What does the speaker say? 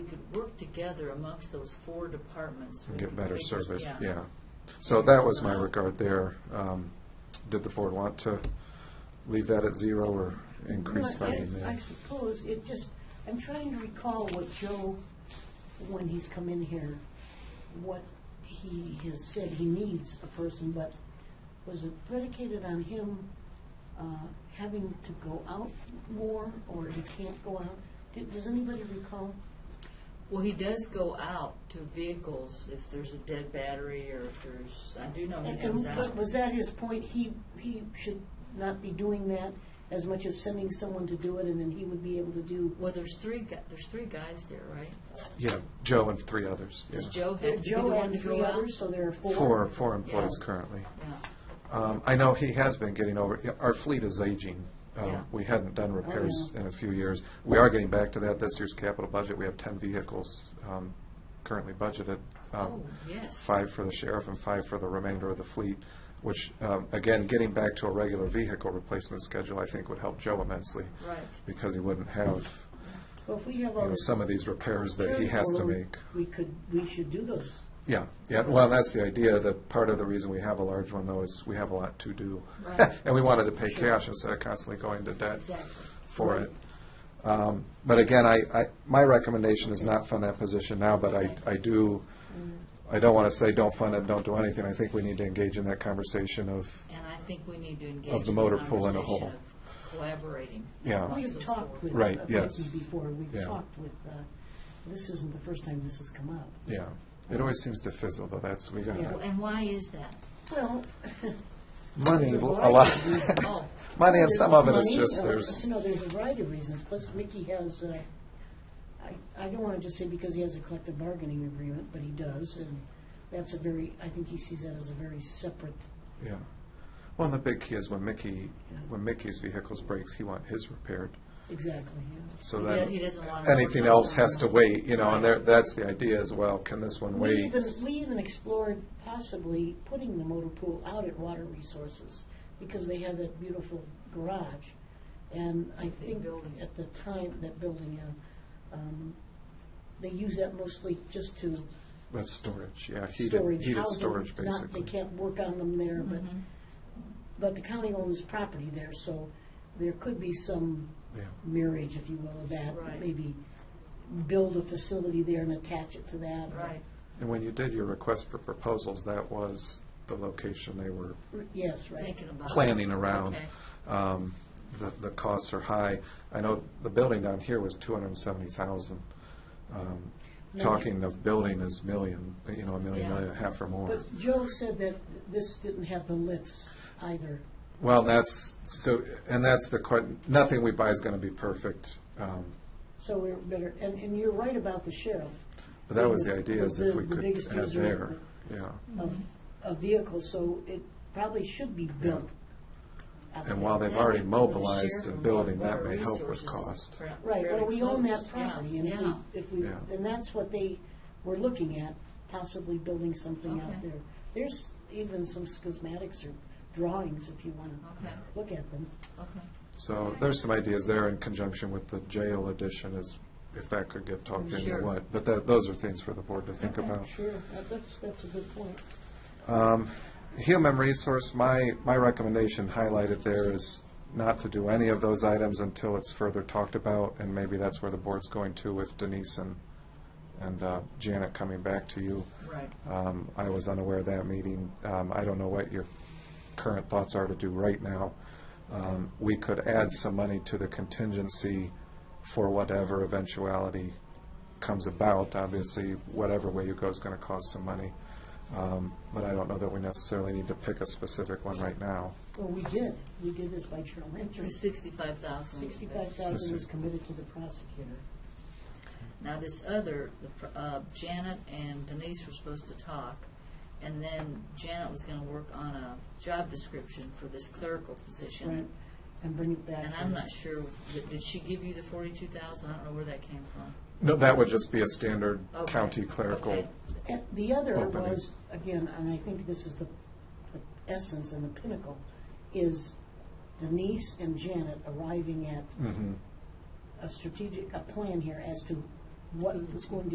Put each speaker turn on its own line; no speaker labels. work together amongst those four departments. we
get
can
better
figure-
service, yeah. So that was my regard there. Um, Did the board want to leave that at zero or increase
Well, I-
funding
I
there?
suppose, it just, I'm trying to recall what Joe, when he's come in here, what he has said he needs a person, but was it predicated on him uh, having to go out more, or he can't go out? Do- Does anybody recall?
Well, he does go out to vehicles if there's a dead battery or if there's, I do know he
And
goes
wa-
out.
Was that his point, he, he should not be doing that as much as sending someone to do it, and then he would be able to do?
Well, there's three, gu- there's three guys there, right?
Yeah, Joe and three others.
Does
yeah.
Joe have to be the
Joe
one to
and three
go out?
others, so there are four?
Four, four employees
Yeah.
currently.
Yeah.
Um, I know he has been getting over, yeah, our fleet is aging. Um,
Yeah. Oh,
We hadn't done repairs
yeah.
in a few years. We are getting back to that. This year's capital budget, we have ten vehicles um, currently budgeted.
Oh,
um,
yes.
Five for the sheriff and five for the remainder of the fleet, which, um, again, getting back to a regular vehicle replacement schedule, I think would help Joe immensely.
Right.
Because he wouldn't have,
Well, if we have
you
all
know,
this
some of these repairs that he has to
Well,
make.
We could, we should do those.
Yeah, yeah, well, that's the idea, that part of the reason we have a large one, though, is we have a lot to do.
Right.
And we wanted to pay cash instead of constantly going to debt
Exactly.
for it. Um, But again, I, I, my recommendation is not fund that position now, but I, I do, I don't want to say, don't fund it, don't do anything. I think we need to engage in that conversation of,
And I think we need to engage.
Of the
in
motor pool and a
conversation
whole.
of Collaborating.
Yeah.
amongst
We've
those
talked
four.
with.
Uh, Right,
uh,
yes.
Becky Before, we've
Yeah.
talked with, uh, this isn't the first time this has come up.
yeah. It always seems to fizzle, though, that's, we got
Yeah.
And why is that?
Well.
money, a
there's
lot,
variety of reasons.
Oh,
money, and some of it is
Money,
just,
uh,
there's,
You know, there's a variety of reasons, plus Mickey has, uh, I, I don't want to just say because he has a collective bargaining agreement, but he does, and that's a very, I think he sees that as a very separate,
yeah. Well, and the big key is when Mickey, when Mickey's vehicles breaks, he want his repaired.
exactly, yeah.
So
He
then,
do- he doesn't want to
anything
work on
else has to
something else.
wait, you know, and there, that's the idea as well, can this one
We
wait?
even, we even explored possibly putting the motor pool out at Water Resources because they have that beautiful garage. And I think
building.
at the time, that building, uh, um, they use that mostly just to
That's storage, yeah, heated,
storage.
heated
housing,
storage,
not- They
basically.
can't work on them there, but,
Mhm.
but the county owns property there, so there could be some
Yeah,
marriage, if you will, of that.
Right.
Maybe build a facility there and attach it to that. or-
Right.
And when you did your request for proposals, that was the location they were
Yes, right.
Thinking about. it.
planning around.
Okay.
Um, The, the costs are high. I know the building down here was two hundred and seventy thousand. Um,
No.
Talking of building is million, you know, a million,
Yeah.
and a half or more.
But Joe said that this didn't have the lifts either.
Well, that's, so, and that's the, que- nothing we buy is going to be perfect. Um,
So we're better, and, and you're right about the sheriff.
But that was
being
the idea, is if we
the
could
biggest
add
user
there,
of-
yeah.
Of, of vehicles, so it probably should be built. out
And while
there.
they've already
Yeah,
mobilized
share
a
from
building, that
water
may help with
resources is
cost.
fair-
Right,
fairly
well, we own
close.
that
Yeah,
property, and if
yeah.
we, if we,
Yeah.
and that's what they were looking at, possibly building
Okay.
something out there. There's even some schematics or drawings, if you want to
Okay,
look at them.
okay.
So there's some ideas there in conjunction with the jail addition is, if that could get talked into
Sure.
what. But that, those are things for the board to think
Okay.
about.
Sure, that- that's, that's a good point.
Um, Human resource, my, my recommendation highlighted there is not to do any of those items until it's further talked about, and maybe that's where the board's going to with Denise and, and uh, Janet coming back to you.
Right.
Um, I was unaware of that meeting. Um, I don't know what your current thoughts are to do right now. Um, we could add some money to the contingency for whatever eventuality comes about. Obviously, whatever way you go is going to cost some money. Um, but I don't know that we necessarily need to pick a specific one right now.
Well, we did, we did this by journal entry.
The sixty-five thousand.
Sixty-five thousand was committed to the prosecutor.
Now, this other, the pr- uh, Janet and Denise were supposed to talk, and then Janet was gonna work on a job description for this clerical
Right,
position.
and bring it back.
And I'm not sure, did- did she give you the forty-two thousand? I don't know where that came from.
No, that would just be a standard
Okay.
county clerical.
Okay.
And The other
Opening.
was, again, and I think this is the the essence and the pinnacle, is Denise and Janet arriving at
Mhm.
a strategic, a plan here as to what was going to